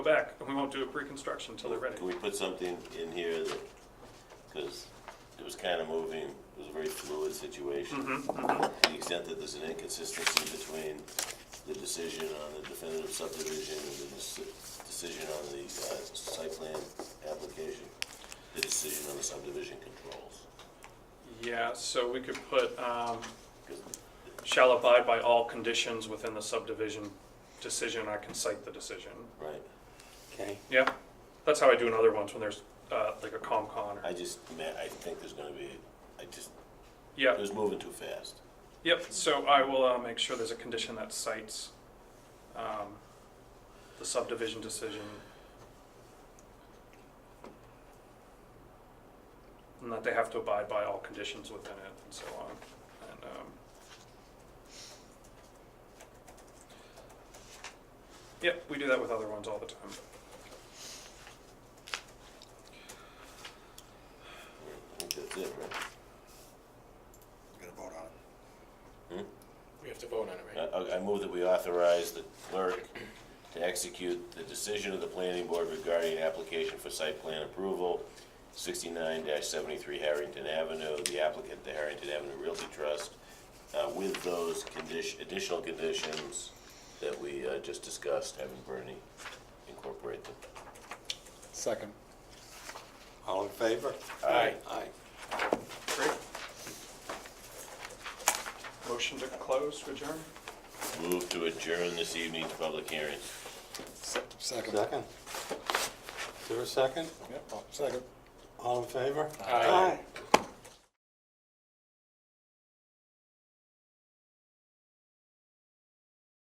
spec, and we won't do a pre-construction until Oh, they're ready. Can we put something in here that, because it was kind of moving, it was a very fluid situation. Mm-hmm, To the extent that there's an inconsistency between the decision on the definitive subdivision and the deci- decision on the uh, site plan application, the decision on the subdivision controls. Yeah, so we could put, um, 'Cause shall abide by all conditions within the subdivision decision, I can cite the decision. Right, Okay, Yeah, that's how I do in other ones when there's, uh, like a COMCON or, I just, ma- I think there's gonna be, I just, yeah, it was moving too fast. Yep, so I will uh, make sure there's a condition that cites um, the subdivision decision. And that they have to abide by all conditions within it and so on. And, um, Yep, we do that with other ones all the time. I think that's it, right? We're gonna vote on it. we have to vote on it, right? I, I move that we authorize the clerk to execute the decision of the planning board regarding application for site plan approval, sixty-nine seventy-three Harrington Avenue, the applicant, the Harrington Avenue Realty Trust, uh, with those condition, additional conditions that we, uh, just discussed, having Bernie incorporate them. Second. All in favor? Aye. Aye. Great. Motion to close, to adjourn? Move to adjourn this evening's public hearing. Second. Second. Is there a second? Yep. Second. All in favor? Aye.